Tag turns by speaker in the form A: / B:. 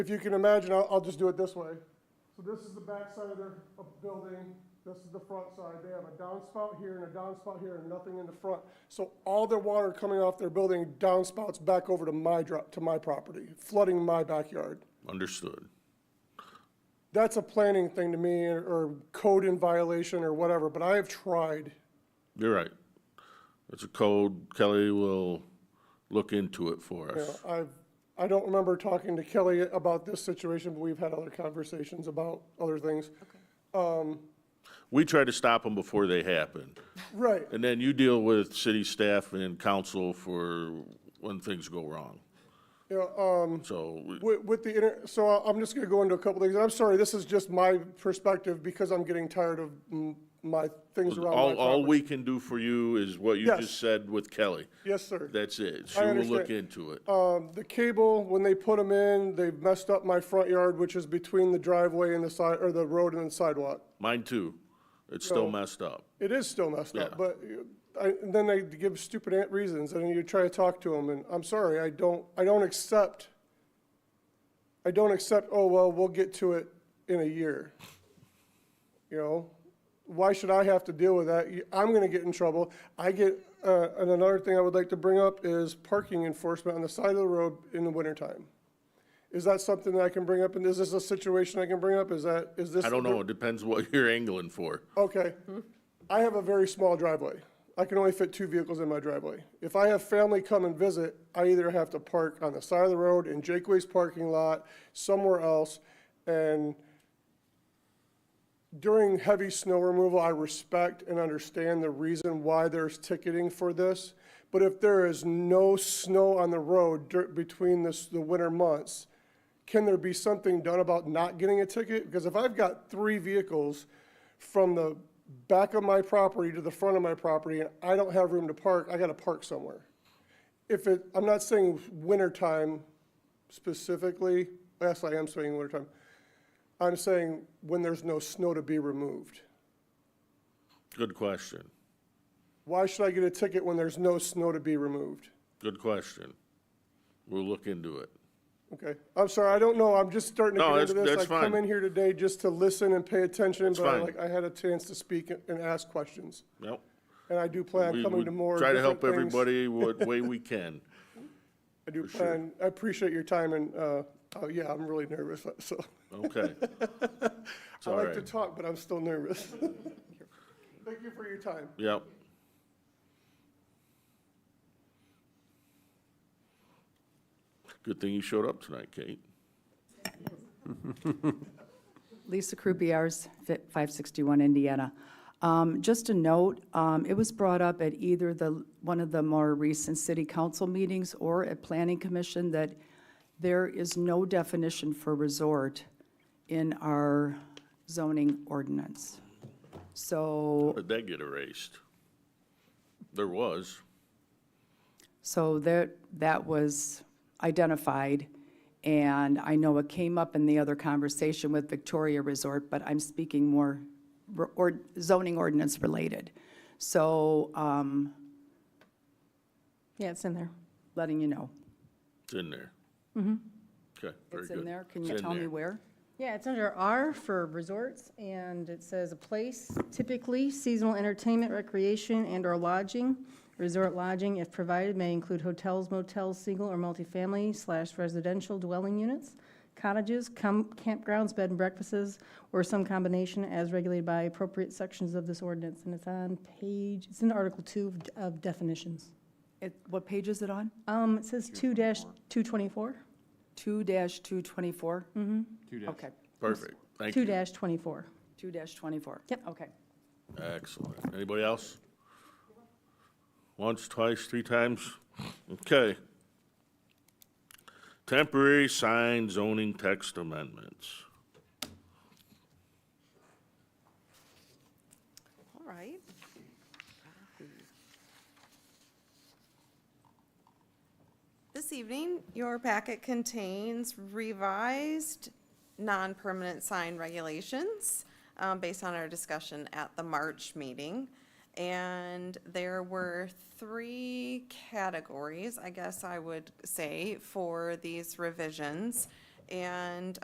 A: If you can imagine, I'll, I'll just do it this way. So this is the back side of their of the building, this is the front side. They have a downspout here and a downspout here and nothing in the front. So all their water coming off their building downspouts back over to my drop, to my property, flooding my backyard.
B: Understood.
A: That's a planning thing to me or- or code in violation or whatever, but I have tried.
B: You're right. It's a code. Kelly will look into it for
A: You
B: us.
A: know, I've, I don't remember talking to Kelly about this situation, but we've had other conversations about other things.
B: We try to stop them before they happen.
A: Right,
B: And then you deal with city staff and council for when things go wrong.
A: you know, um,
B: So we-
A: With, with the, inter- so I- I'm just gonna go into a couple things, and I'm sorry, this is just my perspective, because I'm getting tired of mm, my things around my
B: all, all
A: property.
B: we can do for you is what you
A: Yes.
B: just said with Kelly.
A: Yes, sir.
B: That's it. She
A: I
B: will look
A: understand.
B: into it.
A: Um, the cable, when they put them in, they messed up my front yard, which is between the driveway and the side, or the road and the sidewalk.
B: Mine too. It's still messed up.
A: It is still messed
B: Yeah.
A: up, but uh, I, and then they give stupid ant reasons, and you try to talk to them, and I'm sorry, I don't, I don't accept, I don't accept, oh, well, we'll get to it in a year. You know, why should I have to deal with that? You- I'm gonna get in trouble. I get, uh, and another thing I would like to bring up is parking enforcement on the side of the road in the wintertime. Is that something that I can bring up, and is this a situation I can bring up? Is that, is this?
B: I don't know. It depends what you're angling for.
A: Okay. I have a very small driveway. I can only fit two vehicles in my driveway. If I have family come and visit, I either have to park on the side of the road in Jake Way's parking lot, somewhere else. And during heavy snow removal, I respect and understand the reason why there's ticketing for this. But if there is no snow on the road dur- between this, the winter months, can there be something done about not getting a ticket? Because if I've got three vehicles from the back of my property to the front of my property and I don't have room to park, I gotta park somewhere. If it, I'm not saying wintertime specifically, yes, I am saying wintertime. I'm saying when there's no snow to be removed.
B: Good question.
A: Why should I get a ticket when there's no snow to be removed?
B: Good question. We'll look into it.
A: Okay, I'm sorry, I don't know, I'm just starting to
B: No,
A: get into
B: that's-
A: this.
B: that's
A: I come
B: fine.
A: in here today just to listen and pay attention, but I
B: fine.
A: like, I had a chance to speak and- and ask questions.
B: Nope.
A: And I do plan
B: We-
A: on coming
B: we
A: to more
B: Try to
A: different
B: help
A: things.
B: everybody what way we can.
A: I do
B: sure.
A: plan, I appreciate your time and, uh, oh, yeah, I'm really nervous, so.
B: Okay. It's
A: I
B: all
A: like to
B: right.
A: talk, but I'm still nervous. Thank you for your time.
B: Yep. Good thing you showed up tonight, Kate.
C: Lisa Croupiers, fi- 561 Indiana. Um, Just a note, um, it was brought up at either the, one of the more recent city council meetings or at Planning Commission that there is no definition for resort in our zoning ordinance. So,
B: Did that get erased? There was.
C: so that, that was identified, and I know it came up in the other conversation with Victoria Resort, but I'm speaking more re- or zoning ordinance related. So, um,
D: Yeah, it's in there.
C: letting you know.
B: It's in there. Mm-hmm. Okay, very
C: It's
B: good.
C: in there, can
B: It's
C: you
B: in
C: tell me
B: there.
C: where?
D: Yeah, it's under R for resorts, and it says a place, typically seasonal entertainment, recreation, and/or lodging. Resort lodging, if provided, may include hotels, motels, single or multifamily slash residential dwelling units, cottages, com- campgrounds, bed and breakfasts, or some combination as regulated by appropriate sections of this ordinance. And it's on page, it's in Article 2 of- of definitions.
C: It, what page is it on?
D: Um, It says 2-224?
C: Two dash two twenty-four? Mm-hmm. Two dash. Okay,
B: Perfect, thank you.
D: 2-24.
C: two dash twenty-four.
D: Yep.
C: Okay.
B: Excellent. Anybody else? Once, twice, three times? Okay. Temporary sign zoning text amendments.
E: All right. This evening, your packet contains revised non-permanent sign regulations um, based on our discussion at the March meeting. And there were three categories, I guess I would say, for these revisions. and